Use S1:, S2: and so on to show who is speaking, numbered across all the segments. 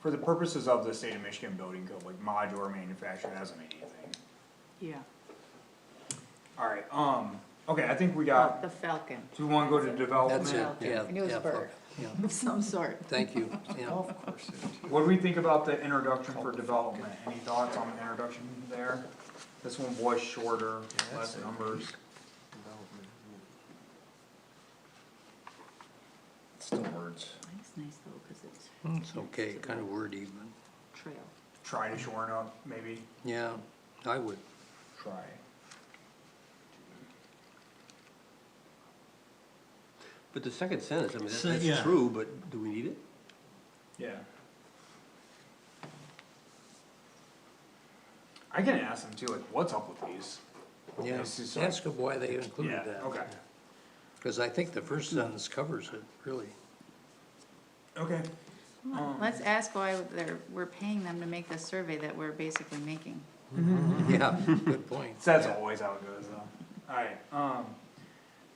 S1: for the purposes of the state of Michigan building code, like modular manufacturer doesn't mean anything.
S2: yeah,
S1: Alright, um, okay, I think we
S2: Oh,
S1: got,
S2: the Falcon
S1: do we wanna go to
S3: That's it,
S1: development?
S2: Okay.
S3: yeah.
S2: I knew it was
S3: yeah,
S2: a bird.
S3: yeah.
S2: of some sort.
S3: Thank you, yeah.
S4: Golf course.
S1: What do we think about the introduction for development? Any thoughts on the introduction there? This one was shorter,
S4: Yeah,
S1: less
S4: that's it.
S1: numbers.
S4: Still words.
S2: I think It's nice though, cause it's
S3: It's okay, kind of wordy, but,
S2: trail.
S1: Try to shorten up, maybe?
S3: yeah, I would.
S1: Try.
S5: But the second sentence, I mean,
S6: So,
S5: that's,
S6: yeah.
S5: that's true, but do we need it?
S1: Yeah. I can ask them too, like, what's up with these?
S3: Yeah,
S1: This is-
S3: ask them why they included
S1: Yeah,
S3: that.
S1: okay.
S3: Because I think the first sentence covers it, really.
S1: Okay. Um,
S2: Let's ask why they're, we're paying them to make this survey that we're basically making.
S3: Yeah, good point.
S1: That's always how it goes though. Alright, um,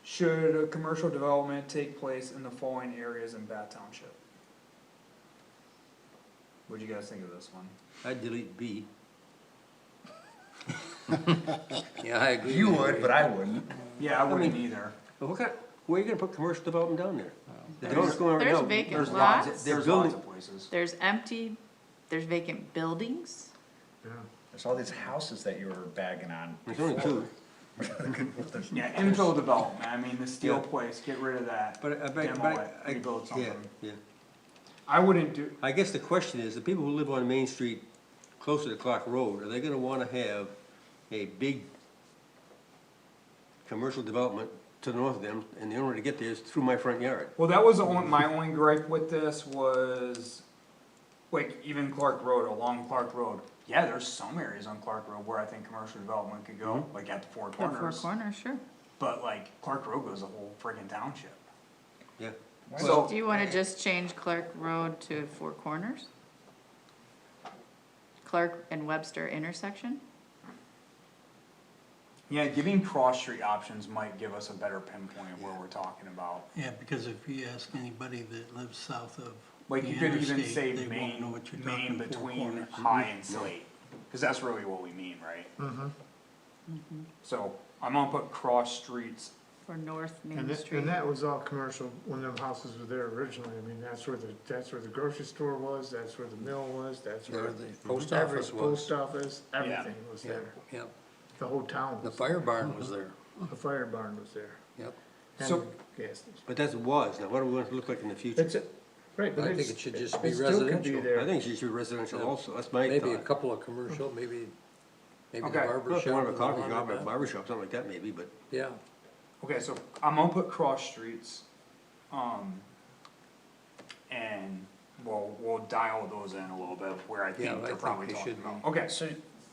S1: should a commercial development take place in the following areas in Bath Township? What'd you guys think of this one?
S5: I delete B.
S3: Yeah, I agree.
S4: You
S3: with
S4: would, but I wouldn't.
S1: Yeah, I wouldn't either.
S5: But what kind, where are you gonna put commercial development down there?
S1: Oh.
S5: The development's going over
S2: There's
S5: down-
S2: vacant
S1: There's lots,
S2: Lots?
S1: of-
S5: They're
S1: there's lots
S5: building-
S1: of places.
S2: There's empty, there's vacant buildings,
S4: There's all these houses that you were bagging on.
S5: There's only two,
S4: There's-
S1: Yeah, infill development, I mean, the steel
S5: Yeah.
S1: place, get rid of that.
S5: but I, but I-
S1: demo
S5: but
S1: it,
S5: I,
S1: rebuild
S5: I, yeah,
S1: something.
S5: yeah.
S1: I wouldn't do,
S5: I guess the question is, the people who live on Main Street closer to Clark Road, are they gonna wanna have a big commercial development to the north of them, and the only way to get there is through my front yard?
S1: Well, that was the only, my only gripe with this was, like, even Clark Road, along Clark Road. Yeah, there's some areas on Clark Road where I think commercial development could go, like at the Four
S2: the four
S1: Corners.
S2: corners, sure.
S1: But like, Clark Road goes the whole friggin' township.
S5: Yeah,
S4: Why
S1: So,
S2: Do you
S3: eh.
S2: wanna just change Clark Road to Four Corners? Clark and Webster intersection?
S1: yeah, giving cross street options might give us a better pinpoint of where we're talking about.
S6: Yeah, because if you ask anybody that lives south of
S1: Like,
S6: the
S1: you could even
S6: interstate,
S1: say
S6: they won't know
S1: main,
S6: what you're
S1: main
S6: talking, Four
S1: between
S6: Corners.
S1: high and slate, cause that's really what we mean, right? So, I'm gonna put cross streets
S2: Or North
S7: And
S2: Main
S7: that,
S2: Street?
S7: and that was all commercial when them houses were there originally, I mean, that's where the, that's where the grocery store was, that's where the mill was, that's
S3: There
S7: where.
S3: the post
S7: every
S3: office was.
S7: Post office, everything was
S3: Yeah,
S7: there,
S3: yeah.
S7: the whole town
S3: The
S7: was,
S3: fire barn
S6: Uh-huh.
S3: was there,
S7: the fire barn was there.
S3: yep.
S7: and
S1: So-
S7: the gas station.
S5: but that's was, now what do we want it to look like in the future?
S7: That's it, right, but
S3: I think
S7: it's,
S3: it
S7: it
S3: should just be
S7: still could be
S3: residential.
S7: there.
S5: I think she should be residential
S3: Yeah.
S5: also, that's my
S3: Maybe a
S5: thought.
S3: couple of commercial, maybe, maybe the
S1: Okay.
S3: barber
S5: Not
S3: shop.
S5: one of a
S3: and the
S5: coffee shop, or a
S3: laundromat.
S5: barber shop, something like that maybe, but
S3: Yeah,
S1: Okay, so I'm gonna put cross streets, um, and we'll, we'll dial those in a little bit where I
S3: Yeah, I
S1: think they're
S3: think
S1: probably
S3: they
S1: talking
S3: should
S1: about. Okay,
S4: So,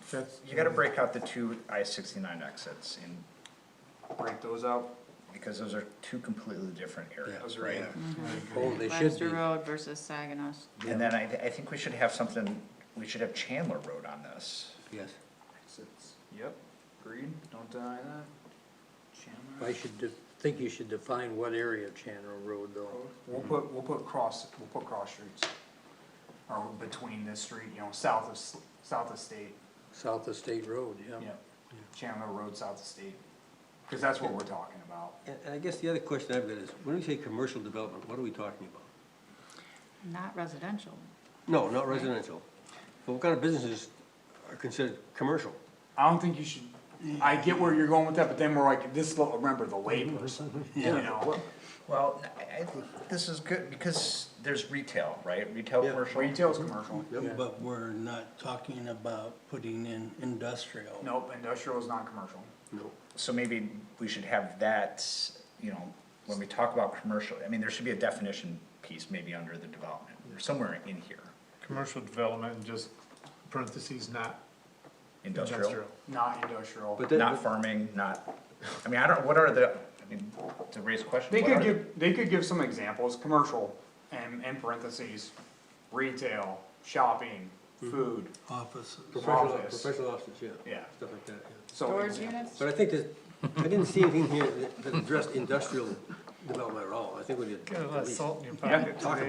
S7: That's-
S4: you gotta break out the two I sixty-nine exits and,
S1: break those out,
S4: because those are two completely different areas,
S1: Yeah. Right. Mm-hmm.
S4: right?
S3: oh, they should
S2: Webster
S3: be,
S2: Road versus Saginaw,
S4: And then I, I think we should have something, we should have Chandler Road on this.
S5: yes.
S1: yep, agreed, don't deny that. Chandler,
S3: I should, de- think you should define what area of Chandler Road though.
S1: we'll put, we'll put cross, we'll put cross streets, or between this street, you know, south of, S- south of state,
S3: South of State Road, yeah.
S1: yep, Chandler Road, south of state, cause that's what we're talking about.
S5: And and I guess the other question I've got is, when we say commercial development, what are we talking about?
S2: not residential.
S5: No, not residential. But what kind of businesses are considered commercial?
S1: I don't think you should, I get where you're going with that, but then we're like, this, lo- remember the labels, you know?
S4: Well, I, I think this is good, because there's retail, right? Retail,
S5: Yeah.
S4: commercial.
S1: Retail's commercial,
S6: But we're not talking about putting in industrial.
S1: nope, industrial is not commercial.
S5: No.
S4: So maybe we should have that, you know, when we talk about commercial, I mean, there should be a definition piece maybe under the development, or somewhere in here,
S7: commercial development and just parentheses, not
S4: industrial.
S7: industrial.
S1: Not industrial.
S5: But
S4: Not
S5: that,
S4: farming, not, I mean, I don't, what are the, I mean, to raise questions.
S1: They
S4: what
S1: could
S4: are the-
S1: give, they could give some examples, commercial, and in parentheses, retail, shopping, food,
S6: Offices.
S5: professional,
S1: office.
S5: professional offices, yeah.
S1: Yeah.
S5: Stuff like that, yeah.
S1: so.
S2: Storage
S1: example.
S2: units?
S5: But I think that, I didn't see anything here that that addressed industrial development at all. I think we did.
S8: Got a lot of salt in your
S1: Yeah,
S8: pocket.
S1: talk